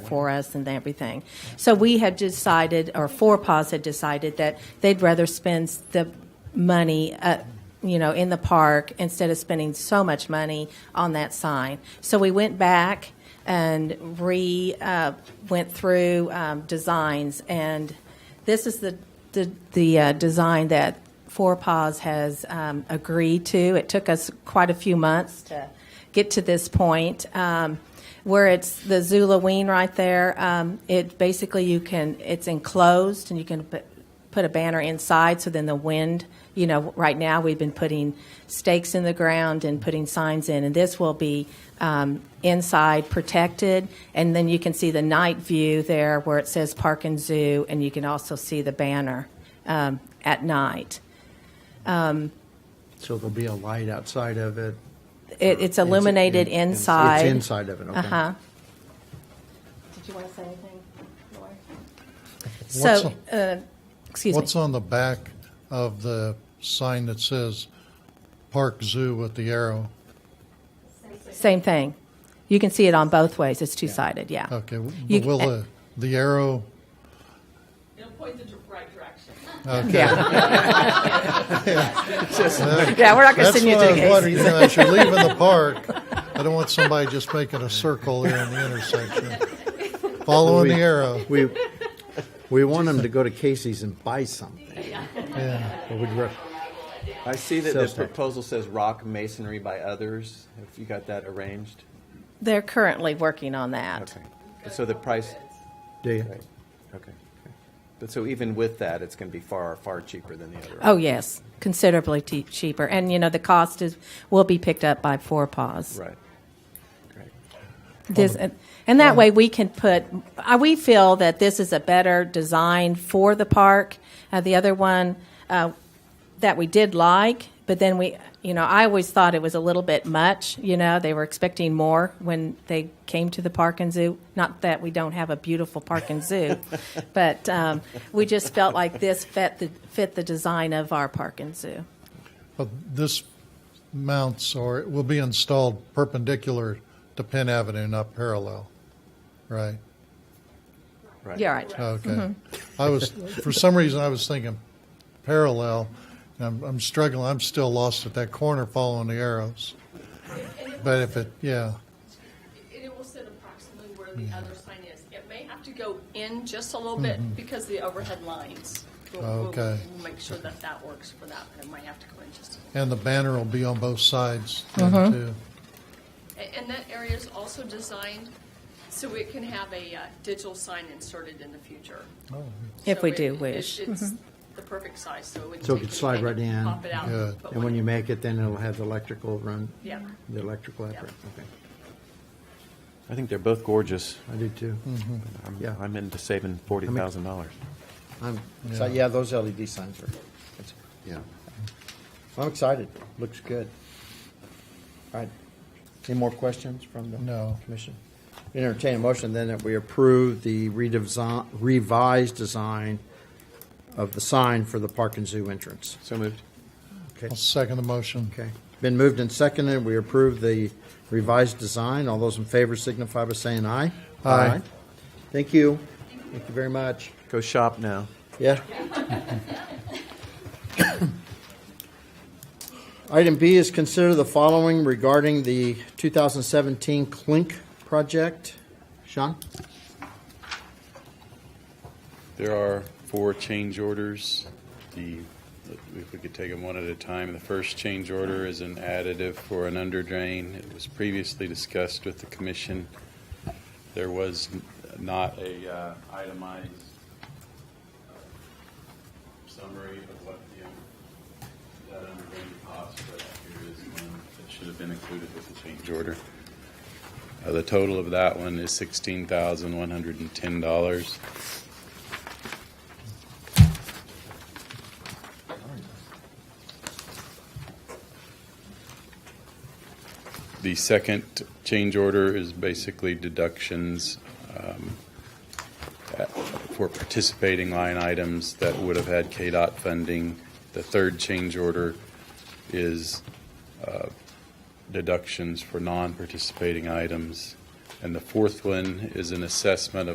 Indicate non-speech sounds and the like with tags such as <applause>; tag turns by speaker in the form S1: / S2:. S1: for us and everything. So we had decided, or Four Paws had decided, that they'd rather spend the money, uh, you know, in the park instead of spending so much money on that sign. So we went back and re uh, went through um, designs, and this is the the, the uh, design that Four Paws has um, agreed to. It took us quite a few months to get to this point. Um, where it's the Zula Ween right there, um, it basically you can it's enclosed and you can put, put a banner inside. So then the wind, you know, right now we've been putting stakes in the ground and putting signs in, and this will be um, inside protected. And then you can see the night view there where it says Park and Zoo, and you can also see the banner um, at night.
S2: So there'll be a light outside of it.
S1: It, it's illuminated
S2: In- in-
S1: inside.
S2: It's inside of it, okay.
S1: Uh huh. Did you want to say anything? Lori?
S3: What's
S1: So, uh, excuse me.
S3: What's on the back of the sign that says Park Zoo with the arrow?
S1: Same thing. You can see it on both ways. It's two sided, yeah.
S3: Okay, w-
S1: You-
S3: will the, the arrow,
S4: It'll point the dir- right direction.
S1: Yeah. <laughs> yeah, we're not going to
S3: that's
S1: send you
S3: what
S1: to the
S3: I was
S1: case.
S3: wondering, you know, as you're leaving the park, I don't want somebody just making a circle there in the intersection. Following the arrow,
S2: We, we want them to go to Casey's and buy something.
S3: yeah.
S2: But we'd rec-
S5: I see that the
S2: Sales tax.
S5: proposal says rock masonry by others, if you got that arranged.
S1: They're currently working on that.
S5: Okay. So the price,
S2: Do you?
S5: right, okay. But so even with that, it's going to be far, far cheaper than the other.
S1: Oh, yes, considerably te- cheaper. And, you know, the cost is will be picked up by Four Paws.
S5: Right. Great.
S1: This, and, and that way we can put, uh, we feel that this is a better design for the park. Uh, the other one uh, that we did like, but then we, you know, I always thought it was a little bit much. You know, they were expecting more when they came to the park and zoo. Not that we don't have a beautiful park and zoo, but um, we just felt like this fit the, fit the design of our park and zoo.
S3: But this mounts or it will be installed perpendicular to Penn Avenue, not parallel, right?
S5: Right.
S1: You're right.
S3: Okay. I was, for some reason, I was thinking parallel. and I'm, I'm struggling. I'm still lost at that corner following the arrows. But if it, yeah,
S4: And it will sit approximately where the
S2: Mm-hmm.
S4: other sign is. It may have to go in just a little bit because the overhead lines. We'll- we'll-
S3: Okay.
S4: We'll make sure that that works for that, but it might have to go in just a little.
S3: and the banner will be on both sides then, too.
S4: A- And that area is also designed so it can have a uh, digital sign inserted in the future.
S2: Oh.
S1: If
S4: So
S1: we
S4: it-
S1: do
S4: it-
S1: wish.
S4: It's the perfect size, so it would.
S2: Mm-hmm. So it
S4: take
S2: could slide
S4: anything,
S2: right in.
S4: Pop it out.
S3: Good.
S4: put
S2: And
S4: one
S2: when
S4: in.
S2: you make it, then it'll have the electrical run?
S4: Yeah.
S2: The electrical effort, okay.
S5: I think they're both gorgeous.
S2: I do too.
S5: I'm,
S2: Yeah.
S5: I'm into saving forty thousand dollars.
S2: I'm, so, yeah, those LED signs are, that's- yeah. I'm excited. Looks good. All right. Any more questions from the?
S3: No.
S2: Commission? Entertain a motion then that we approve the redesign, revised design of the sign for the Park and Zoo entrance.
S5: So moved.
S2: Okay.
S3: I'll second the motion.
S2: Okay. Been moved and seconded. We approve the revised design. All those in favor signify by saying aye.
S3: Aye.
S2: Thank you. Thank you very much.
S5: Go shop now.
S2: Yeah. <coughs> Item B is consider the following regarding the 2017 Clink project. Sean?
S6: There are four change orders. The, if we could take them one at a time, the first change order is an additive for an under drain. It was previously discussed with the commission. There was n- not a uh, itemized uh, summary of what the, uh, that under drain cost, but here is one that should have been included with the change order. Uh, The total of that one is sixteen thousand one hundred and ten dollars. The second change order is basically deductions um, at- for participating line items that would have had KDOT funding. The third change order is uh, deductions for non-participating items. And the fourth one is an assessment of